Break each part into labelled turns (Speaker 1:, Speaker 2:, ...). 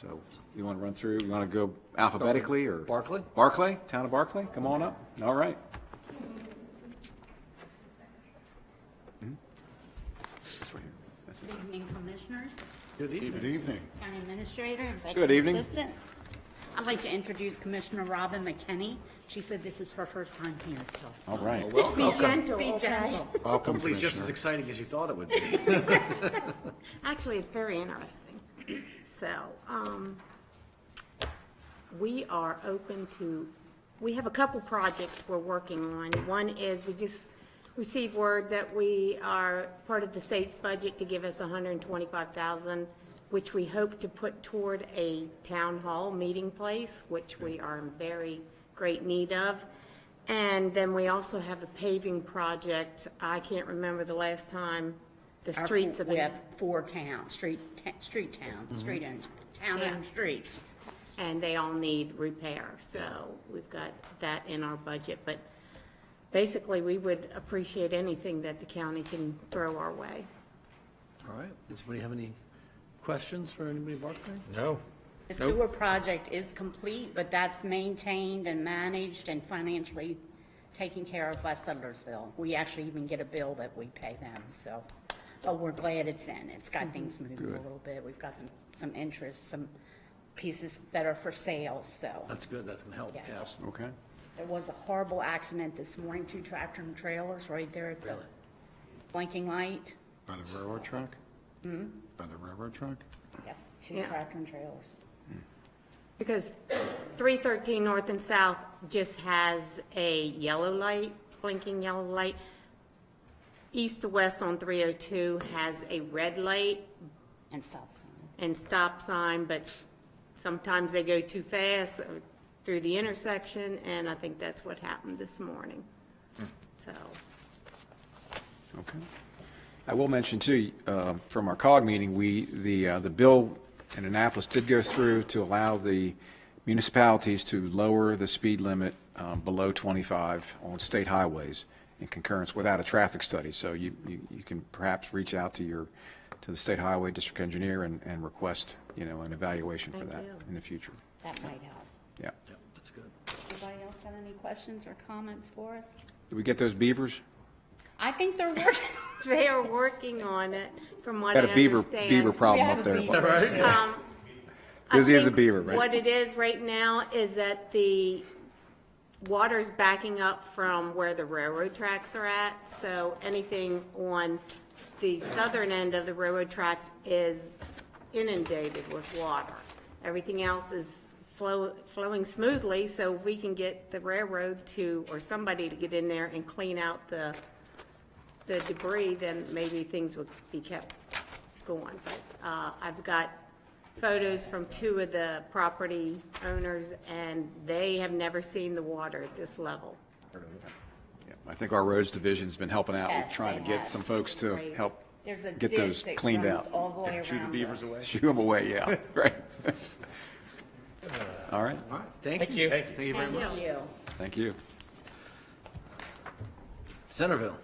Speaker 1: So you want to run through, you want to go alphabetically or?
Speaker 2: Barclay?
Speaker 1: Barclay, town of Barclay, come on up. All right.
Speaker 3: Hmm?
Speaker 1: That's right here. That's it.
Speaker 4: Good evening, Commissioners,
Speaker 2: Good evening.
Speaker 3: Good evening.
Speaker 4: County Administrator,
Speaker 1: Good evening.
Speaker 4: Executive Assistant. I'd like to introduce Commissioner Robin McKenney. She said this is her first time here, so
Speaker 1: All right.
Speaker 4: be gentle, Be gentle.
Speaker 3: Welcome,
Speaker 2: Hopefully it's just as
Speaker 3: Commissioner.
Speaker 2: exciting as you thought it would be.
Speaker 5: Actually, it's very interesting. So, um, we are open to, we have a couple projects we're working on. One is, we just received word that we are part of the state's budget to give us hundred and twenty-five thousand, which we hope to put toward a town hall meeting place, which we are in very great need of. And then we also have a paving project. I can't remember the last time the
Speaker 4: Our
Speaker 5: streets
Speaker 4: four-
Speaker 5: have been.
Speaker 4: We have four towns, street, ta- street towns, street owned, town owned
Speaker 5: Yeah.
Speaker 4: streets.
Speaker 5: and they all need repair, so we've got that in our budget, but basically, we would appreciate anything that the county can throw our way.
Speaker 2: All right, does anybody have any questions for anybody Barclay?
Speaker 6: No.
Speaker 4: The sewer project is complete, but that's maintained and managed and financially taken care of by Sudlersville. We actually even get a bill that we pay them, so, but we're glad it's in. It's got things moving a little bit. We've got some, some interest, some pieces that are for sale, so.
Speaker 2: That's good, that's gonna help,
Speaker 4: Yes.
Speaker 2: yes.
Speaker 1: Okay.
Speaker 4: There was a horrible accident this morning, two tractor and trailers right there at the
Speaker 2: Really?
Speaker 4: blinking light.
Speaker 3: By the railroad track? By the railroad track?
Speaker 4: Yep, two
Speaker 5: Yeah.
Speaker 4: tractor and trailers.
Speaker 5: Because 313 North and South just has a yellow light, blinking yellow light. East to west on 302 has a red light,
Speaker 4: And stop sign.
Speaker 5: and stop sign, but sometimes they go too fast through the intersection, and I think that's what happened this morning. So,
Speaker 1: Okay. I will mention too, uh, from our COG meeting, we, the, uh, the bill in Annapolis did go through to allow the municipalities to lower the speed limit um, below 25 on state highways in concurrence without a traffic study. So you, you you can perhaps reach out to your, to the state highway district engineer and, and request, you know, an evaluation for
Speaker 5: Thank
Speaker 1: that
Speaker 5: you.
Speaker 1: in the future.
Speaker 4: That might help.
Speaker 1: Yeah.
Speaker 2: Yep, that's good.
Speaker 4: Anybody else got any questions or comments for us?
Speaker 1: Did we get those beavers?
Speaker 4: I think they're working.
Speaker 5: they are working on it, from what I
Speaker 1: Got a
Speaker 5: understand. Um,
Speaker 1: beaver, beaver problem up there.
Speaker 5: I
Speaker 1: Busy as a
Speaker 5: think
Speaker 1: beaver, right?
Speaker 5: What it is right now is that the water's backing up from where the railroad tracks are at, so anything on the southern end of the railroad tracks is inundated with water. Everything else is flow, flowing smoothly, so we can get the railroad to, or somebody to get in there and clean out the, the debris, then maybe things would be kept going. But uh, I've got photos from two of the property owners, and they have never seen the water at this level.
Speaker 1: Yeah, I think our roads division's been helping out with
Speaker 4: Yes,
Speaker 1: trying to
Speaker 4: they
Speaker 1: get
Speaker 4: have.
Speaker 1: some folks to
Speaker 5: Great.
Speaker 1: help
Speaker 4: There's a
Speaker 1: get
Speaker 4: ditch
Speaker 1: those
Speaker 4: that
Speaker 1: cleaned
Speaker 4: runs
Speaker 1: out.
Speaker 4: all the way
Speaker 6: Shoo the
Speaker 4: around
Speaker 6: beavers
Speaker 4: the-
Speaker 6: away.
Speaker 1: Shoo them away, yeah, right. All right,
Speaker 2: All right, thank you.
Speaker 6: Thank you.
Speaker 2: Thank you very much.
Speaker 4: Thank you.
Speaker 1: thank you.
Speaker 2: Centerville.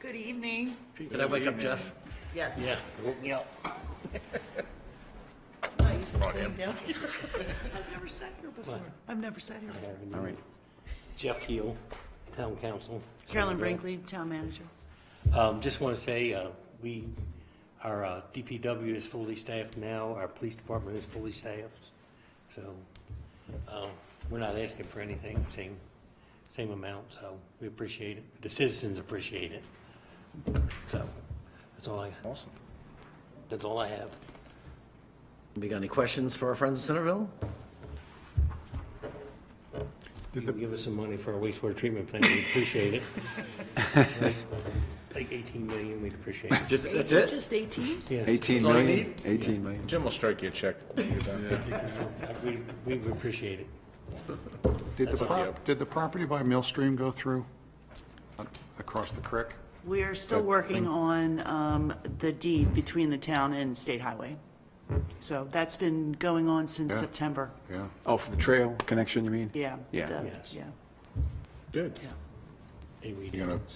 Speaker 7: Good evening.
Speaker 2: Did I wake up Jeff?
Speaker 7: Yes.
Speaker 2: woke me up.
Speaker 7: No, you should have sat down. I've never sat here before. I've never sat here before.
Speaker 1: All right.
Speaker 8: Jeff Keel, Town Council.
Speaker 7: Carolyn Brinkley, Town Manager.
Speaker 8: Um, Just want to say, uh, we, our uh, DPW is fully staffed now, our police department is fully staffed, so uh, we're not asking for anything, same, same amount, so we appreciate it. The citizens appreciate it. So that's all I,
Speaker 1: Awesome.
Speaker 8: that's all I have.
Speaker 2: We got any questions for our friends in Centerville?
Speaker 8: You can give us some money for our wastewater treatment plant, we appreciate it. Like 18 million, we'd appreciate it.
Speaker 2: Just, that's it?
Speaker 7: Just 18?
Speaker 1: 18
Speaker 2: That's all you
Speaker 1: million,
Speaker 2: need?
Speaker 1: 18 million.
Speaker 6: Jim will strike you a check. when you're done.
Speaker 8: We we would appreciate it.
Speaker 3: Did the,
Speaker 8: That's
Speaker 3: pro-
Speaker 8: okay.
Speaker 3: did the property by Millstream go through uh, across the creek?
Speaker 7: We are still
Speaker 3: Good.
Speaker 7: working on um, the deed between the town and State Highway. So that's been going on since
Speaker 3: Yeah.
Speaker 7: September.
Speaker 3: Yeah.
Speaker 1: Oh, for the trail connection, you mean?
Speaker 7: Yeah.
Speaker 1: Yeah.
Speaker 7: the-
Speaker 8: Yes.
Speaker 7: Yeah.
Speaker 1: Good.
Speaker 8: And we-
Speaker 3: You gonna